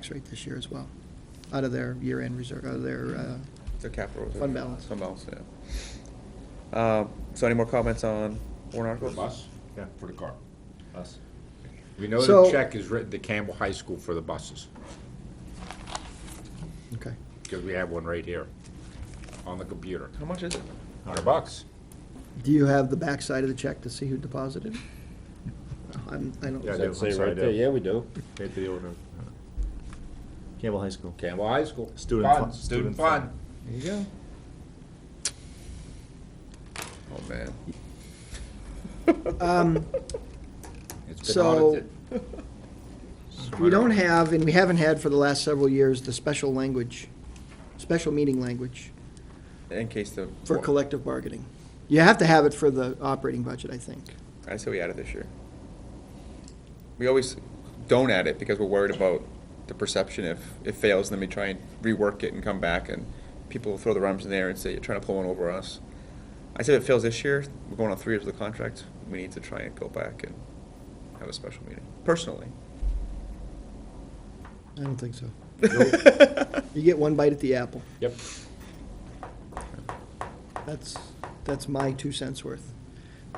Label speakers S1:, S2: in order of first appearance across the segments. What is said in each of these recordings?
S1: tax rate this year as well, out of their year-end reserve, out of their, uh,
S2: Their capital. reserve.
S1: Fund balance.
S2: Fund balance, yeah. Uh, So any more comments on warrant
S3: For
S2: articles?
S3: bus? Yeah. For the car? Bus. We know
S1: So-
S3: the check is written to Campbell High School for the buses,
S1: okay.
S3: because we have one right here on the computer.
S2: How much is it?
S3: Hundred bucks.
S1: Do you have the backside of the check to see who deposited? I'm, I don't.
S3: Yeah, I do.
S4: That'd say
S3: I'm sorry, I
S4: right there,
S3: do.
S4: yeah, we do.
S3: Paid the order.
S4: Campbell High School.
S3: Campbell High School.
S4: Student
S3: Fund,
S4: fund-
S3: Student
S4: student
S3: fund.
S4: fund.
S3: There you go.
S2: Oh, man.
S1: Um,
S3: It's been
S1: So-
S3: audited.
S1: We don't have, and we haven't had for the last several years, the special language, special meeting language
S2: In case the.
S1: for collective bargaining. You have to have it for the operating budget, I think.
S2: I say we add it this year. We always don't add it because we're worried about the perception if it fails, then we try and rework it and come back and people throw their arms in the air and say, you're trying to pull one over on us. I said if it fails this year, we're going on three years of the contract, we need to try and go back and have a special meeting, personally.
S1: I don't think so.
S2: Nope.
S1: You get one bite at the apple.
S3: Yep.
S1: That's, that's my two cents worth.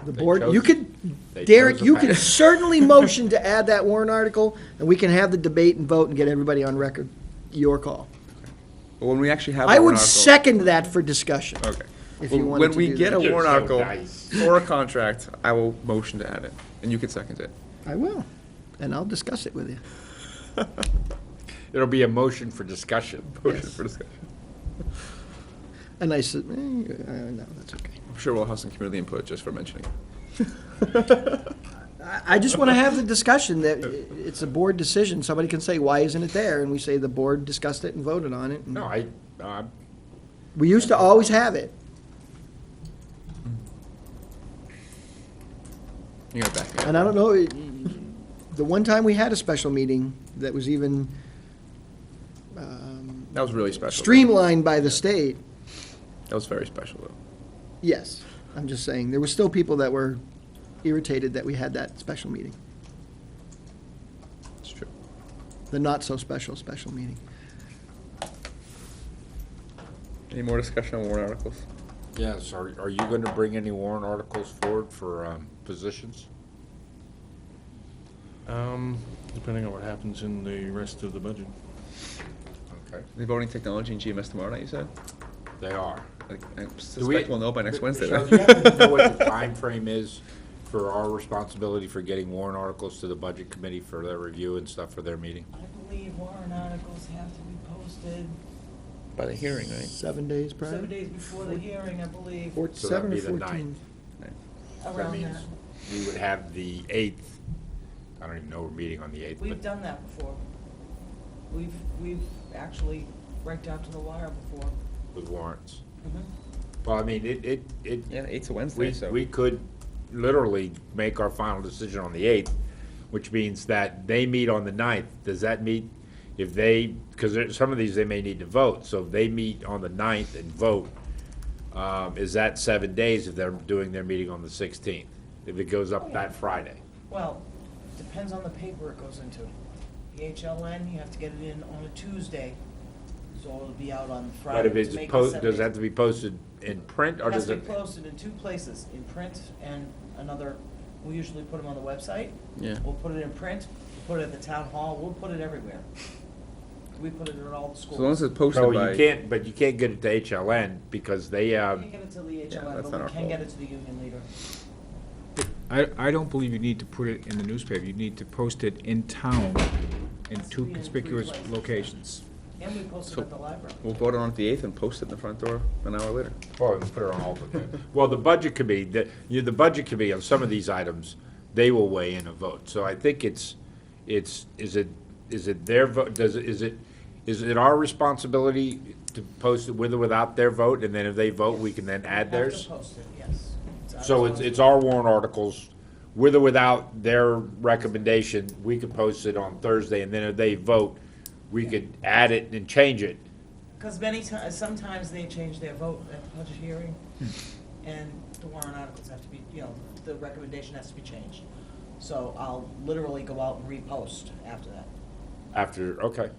S1: The
S3: They
S1: board, you
S3: chose-
S1: could,
S3: they
S1: Derek,
S3: chose a
S1: you could
S3: path.
S1: certainly motion to add that warrant article, and we can have the debate and vote and get everybody on record. Your call.
S2: But when we actually have. a
S1: I would
S2: warrant article-
S1: second that for discussion.
S2: Okay.
S1: If
S2: Well,
S1: you wanted
S2: When
S1: to
S2: we
S1: do
S2: get
S1: that.
S2: a
S3: You're
S2: warrant
S3: so
S2: article
S3: nice.
S2: or a contract, I will motion to add it, and you can second it.
S1: I will, and I'll discuss it with you.
S3: It'll be a motion for discussion.
S2: Motion
S1: Yes.
S2: for discussion.
S1: And I said, eh, uh, no, that's okay.
S2: I'm sure we'll have some community input just for mentioning. it.
S1: I, I just want to have the discussion that it's a board decision. Somebody can say, why isn't it there? And we say the board discussed it and voted on it. and-
S3: No, I, um, I'm
S1: We used to always have it.
S2: You gotta back me up.
S1: And I don't know, it- the one time we had a special meeting that was even um,
S2: That was really special. though.
S1: streamlined by the state,
S2: That was very special, though.
S1: yes, I'm just saying, there were still people that were irritated that we had that special meeting,
S2: It's true.
S1: the not-so-special special meeting.
S2: Any more discussion on warrant articles?
S3: Yes, are, are you gonna bring any warrant articles forward for, um, positions?
S5: Um, depending on what happens in the rest of the budget.
S3: Okay,
S2: The voting technology and GMS tomorrow night, you said?
S3: they are.
S2: I I
S3: Do we-
S2: suspect we'll know by next Wednesday.
S3: Michelle,
S2: then.
S3: do you happen to know what the timeframe is for our responsibility for getting warrant articles to the budget committee for their review and stuff for their meeting?
S6: I believe warrant articles have to be posted
S2: By the hearing, right?
S1: Seven days prior?
S6: seven days before the hearing, I believe,
S1: Four-
S3: So that'd
S1: Seven or
S3: be the
S1: fourteen?
S3: ninth. That
S6: around
S3: means
S6: that.
S3: we would have the eighth, I don't even know we're meeting on the eighth,
S6: We've
S3: but
S6: done that before. We've, we've actually right down to the wire before.
S3: with warrants.
S6: Mhm.
S3: Well, I mean, it, it, it,
S2: Yeah, eight's a Wednesday,
S3: we,
S2: so.
S3: we could literally make our final decision on the eighth, which means that they meet on the ninth. Does that meet, if they, because there, some of these they may need to vote, so if they meet on the ninth and vote, um, is that seven days if they're doing their meeting on the sixteenth? If it goes
S6: Oh,
S3: up that Friday?
S6: Well, depends on the paper it goes into. The HLN, you have to get it in on a Tuesday, so it'll be out on
S3: But
S6: Friday
S3: if
S6: to
S3: it's
S6: make the
S3: posted,
S6: seven
S3: does it
S6: days.
S3: have to be posted in print or
S6: It has
S3: does
S6: to be
S3: it?
S6: posted in two places, in print and another, we usually put them on the website.
S2: Yeah.
S6: We'll put it in print, put it at the town hall, we'll put it everywhere. We put it at all the schools.
S2: So long as it's posted
S3: No,
S2: by.
S3: you can't, but you can't get it to HLN because they,
S6: We
S3: um,
S6: can't get it to the
S2: Yeah, that's
S6: HLN,
S2: not
S6: but
S2: our
S6: we can get
S2: fault.
S6: it to the union leader.
S7: I, I don't believe you need to put it in the newspaper. You need to post it in town in two conspicuous locations.
S6: And we post it
S2: So-
S6: at the library.
S2: We'll vote on it the eighth and post it in the front door an hour later.
S3: Well, Oh, we put it on hold again. Well, the budget committee, the, you know, the budget committee on some of these items, they will weigh in a vote. So I think it's, it's, is it, is it their vote, does, it is it, is it our responsibility to post it with or without their vote? And then if they vote, we can then add
S6: We have
S3: theirs?
S6: to post it, yes. our
S3: So it's, it's our warrant articles, with or without their recommendation, we could post it on Thursday. And then if they vote, we could add it and change it.
S6: Because many times, sometimes they change their vote at the budget hearing, and the warrant articles have to be, you know, the recommendation has to be changed. So I'll literally go out and repost after that.
S3: After, okay,